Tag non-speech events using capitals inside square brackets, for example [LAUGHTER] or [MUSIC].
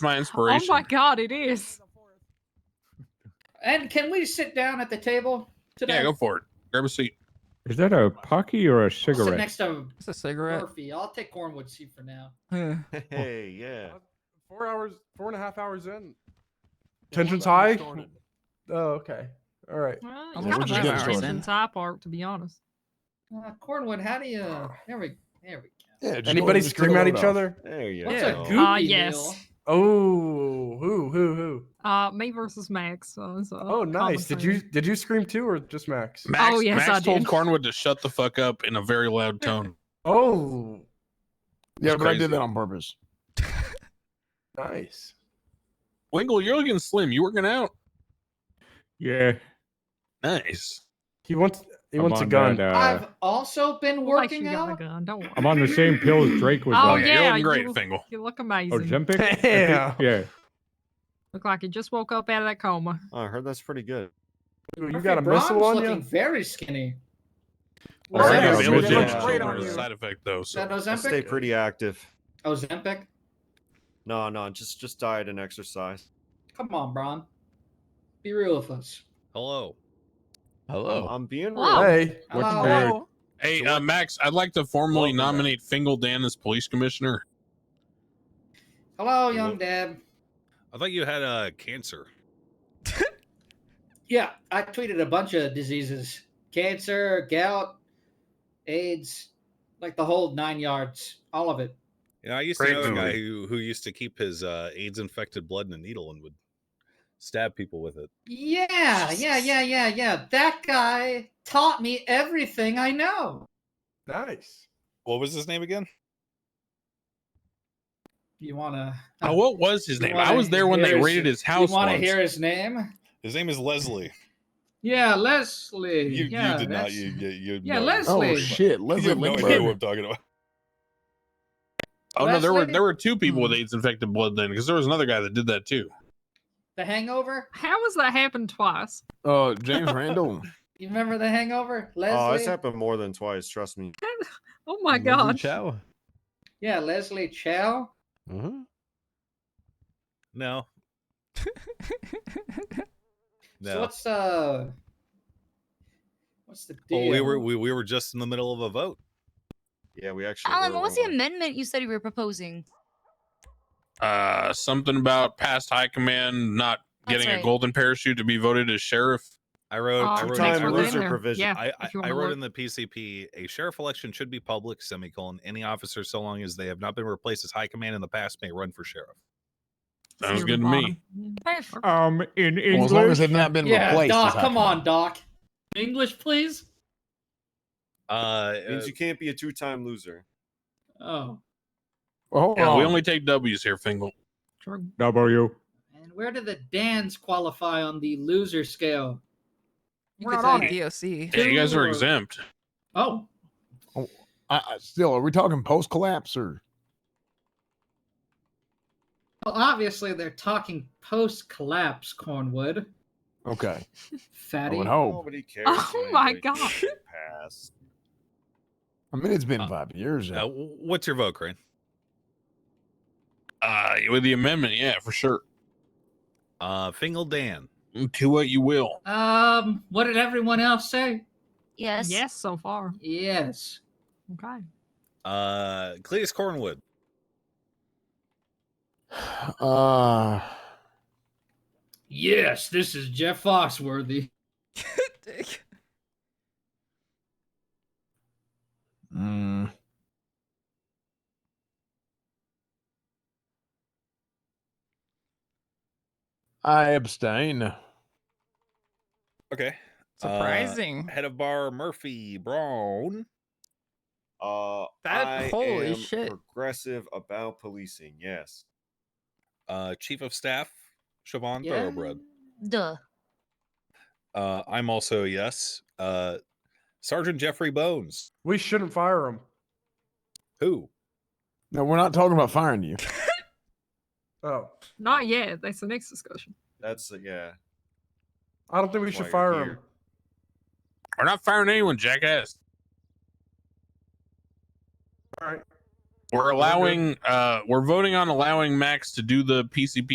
my Oh inspiration. my god, it is. And can we sit down at the table today? yeah, go for it. Grab a seat. Is that a pocky or a I'll sit cigarette? next to It's a cigarette. Murphy. I'll take Cornwood seat for now. Yeah. Hey, yeah. Four hours, four and a half hours in. Tension's We're high? started. Oh, okay. All right. Well, I'm it's kind just of getting makes sense started. in Thai Park, to be honest. Uh, Cornwood, how do you? There we, there we go. yeah just go ahead Anybody and scream throw at it each off. other? There you What's go. a good- goopy Ah, yes. meal? Oh, who, who, who? Uh, me versus Max. so it's a Oh, nice. Did you common did you scream too, or just Max? Max, Oh, yes, Max I told did. Cornwood to shut the fuck up in a very loud tone. Oh, It's [LAUGHS] Yeah, but I crazy. did that on purpose. Oh, nice. Wingle, you're looking slim. You working out? Yeah. Nice. He wants he I'm wants a on gun. that, uh, I've also been thing. Well, like, working you got a out. gun, Don't worry. I'm on the same pill as Drake was Oh, on. you're yeah, looking you great, look- Fingal. You look amazing. Ozempic? I think- Yeah. Yeah. Look like you just woke up out of that coma. Oh, I heard that's pretty good. Ooh, You Murphy got a missile Braun's on Oh, looking you? very skinny. Well, Alright, yeah, but it was yeah. just Great a on you. side effect though. Is that So I stay Ozempic? pretty active. Ozempic? No, no, just just diet and exercise. Come on, Braun. Be real with us. Hello. Hello. I'm being real. Wow. Hey, Hello. Hey. hey, uh, Max, I'd like to formally Welcome back. nominate Fingal Dan as police [LAUGHS] commissioner. Hello, You young look- dad. I thought you had uh, cancer. Yeah, I tweeted a bunch of diseases cancer, gout, AIDS, like the whole nine yards, all of it. You know, I used Great to know a guy movie. who, who used to keep his uh, AIDS infected blood in a needle and would stab people with it. Yeah, yeah, yeah, yeah, yeah. That guy taught me everything I know. nice. What was his name again? You want to. Uh, what was his You name? I wanna was there when they hear his- raided his You house. want to once. hear his name? His name is Leslie. Yeah, Leslie. You, you yeah, did not. that's- You, you, you Yeah, know- Leslie. Oh shit, You Leslie have no idea what Lindbergh. I'm talking about. Oh no, there were Leslie? there were two people with Hmm. AIDS infected blood then, because there was another guy that did that too. The Hangover? How has that happened twice? Uh, James Randall. You remember The Hangover? Oh, Leslie? it's happened more than twice. Trust me. Oh my god. yeah, Leslie Chow. [LAUGHS] No. So No. what's uh what's the deal? Well, Oh, we were we, we were just in the middle of a vote. Yeah, we actually. Alan, were, what was the weren't we? amendment you said you were proposing? Uh, something about past high command not That's getting a right. golden parachute to be voted as sheriff. I wrote, Uh, I Two wrote, time I we're wrote- in there. provision. Yeah, I, I, if you I wanna wrote look. in the PCP a sheriff election should be public, semicolon. Any officer, so long as they have not been replaced as high command in the past, may run for sheriff. Sounds Zero good to me. bottom. [LAUGHS] Perfect. Um, in English. Well, as long as they've not been yeah, replaced. Doc, it's come happened. on, Doc. English, please. Uh, Means you can't be a two-time loser. Oh. Well, hold Yeah, we on. only take W's here, Fingal. True. W. And where do the Dans qualify on the loser scale? We're Because not on I- DOC. Yeah, you guys are Sure. exempt. Oh. I, I, still, are we talking post-collapse or? Well, obviously they're talking post collapse, Cornwood. Okay. Fatty. Nobody cares. Oh my anyway. god. Pass. I mean, it's been five years. uh, w- what's your vote, Crane? Uh, with the amendment, yeah, for sure. Uh, Fingal Dan. To what you will. Um, what did everyone else say? Yes. Yes, so far. Yes. Okay. Uh, Cletus Cornwood. Uh, Yes, this is Jeff Foxworthy. [LAUGHS] Dick. mm, I abstain. Okay. Uh, Surprising. Head of bar Murphy Brown. Uh, That- I holy am shit. Progressive about policing. Yes. Uh, Chief of Staff Siobhan Yeah. Thoroughbred. Duh. Uh, I'm also a yes. Uh, Sergeant Jeffrey Bones. We shouldn't fire him. Who? No, we're not talking about firing you. Oh, Not yet. That's the next discussion. That's yeah. I don't think we should While you're fire him. here. We're not firing anyone, jackass. All right. We're allowing, uh, we're voting on allowing Max to do the PCP